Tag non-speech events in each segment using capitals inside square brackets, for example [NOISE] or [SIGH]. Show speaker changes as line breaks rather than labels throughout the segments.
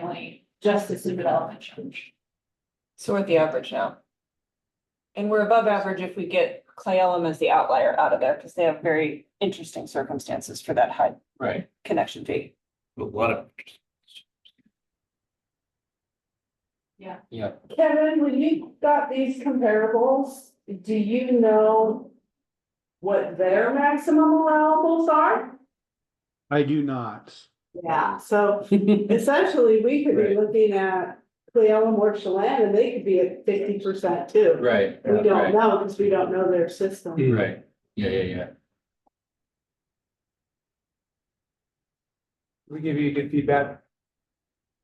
family justice and development church.
So we're at the average now. And we're above average if we get Clay Elum as the outlier out of there, because they have very interesting circumstances for that high
Right.
[LAUGHS]
connection fee.
A lot of.
Yeah.
Yeah,
Kevin, when you got these comparables, do you know what their maximum allowables are?
I do not.
Yeah, so essentially, we could be
Right.
looking at Cleola or Chelan, and they could be at fifty percent too.
right.
We don't
right,
know, because we don't know their system.
Right, yeah, yeah, yeah.
We give you good feedback.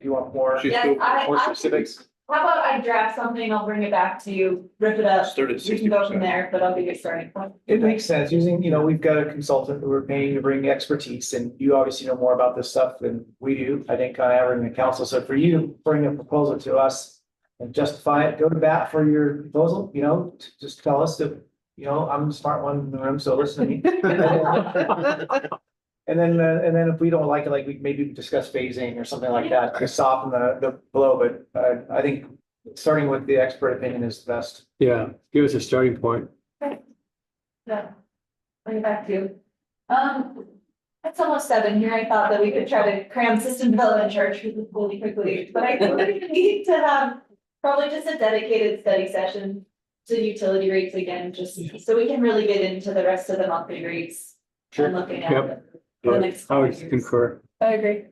If you want more.
Yes, I-
More
I-
specifics.
How about I draft something, I'll bring it back to you, rip it up,
Started
we can go from there, but I'll be your starting point.
It
[LAUGHS]
makes [LAUGHS] sense using, you know, we've got a consultant that we're paying to bring expertise and you obviously know more about this stuff than we do, I think, on average in the council. So for you, to bring a proposal to us and justify it, go to bat for your proposal, you know, t- just tell us that, you know, I'm the smart one in the room, so listen to me.
[LAUGHS]
And then, uh, and then if we don't like it, like we maybe discuss phasing or something like that to soften the, the blow, but uh, I think starting with the expert opinion is best.
Yeah, give us a starting point.
Yeah. Bring it back to you. Um, it's almost seven here. I thought that we could try to cram system development church really quickly, but I think we need to have probably just a dedicated study session to utility rates again, just so we can really get into the rest of the monthly rates. And looking at
Yep.
the next.
I
couple
would
years.
concur.
I agree.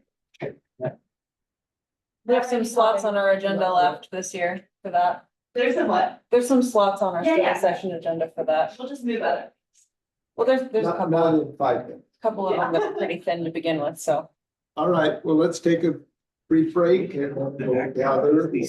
We have some slots on our agenda
agenda
left this year for that.
There's a what?
There's some slots on our
Yeah, yeah.
study session agenda for that.
We'll just move other.
Well, there's, there's a
Not,
couple,
not in five minutes.
couple of them that are pretty thin to begin with, so.
All right, well, let's take a brief break and we'll gather.